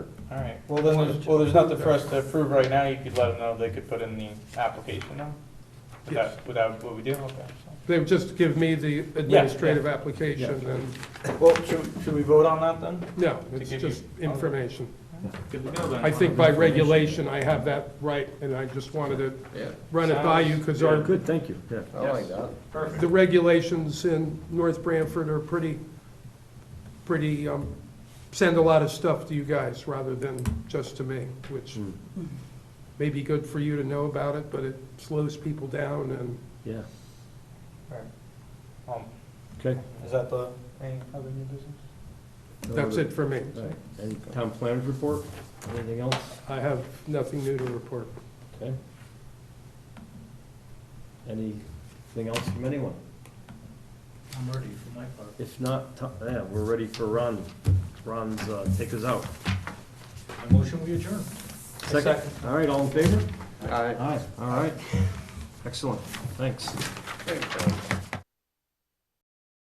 Well, then, there's- well, there's nothing for us to approve right now, you could let them know, they could put in the application now? Without, without what we do, okay, so. They would just give me the administrative application and, Well, should, should we vote on that then? no, To it's give you- just information. Good to go then. I think by regulation, I have that right, and I just wanted to Yeah, run it by you, because our, Good, thank you, yeah. I like that. the regulations in North Branford are pretty, pretty, um, send a lot of stuff to you guys rather than just to me, which Mm. may be good for you to know about it, but it slows people down and Yeah, Um, okay. Is that the, any other new business? that's it for me. All right, and town planners report, anything else? I have nothing new to report. Okay. Anything else from anyone? I'm ready for my part. If not, to- yeah, we're ready for Ron. Ron's, uh, take us out. I motion we adjourn. Second, all right, all in favor? All right. Aye, all right. Excellent, thanks.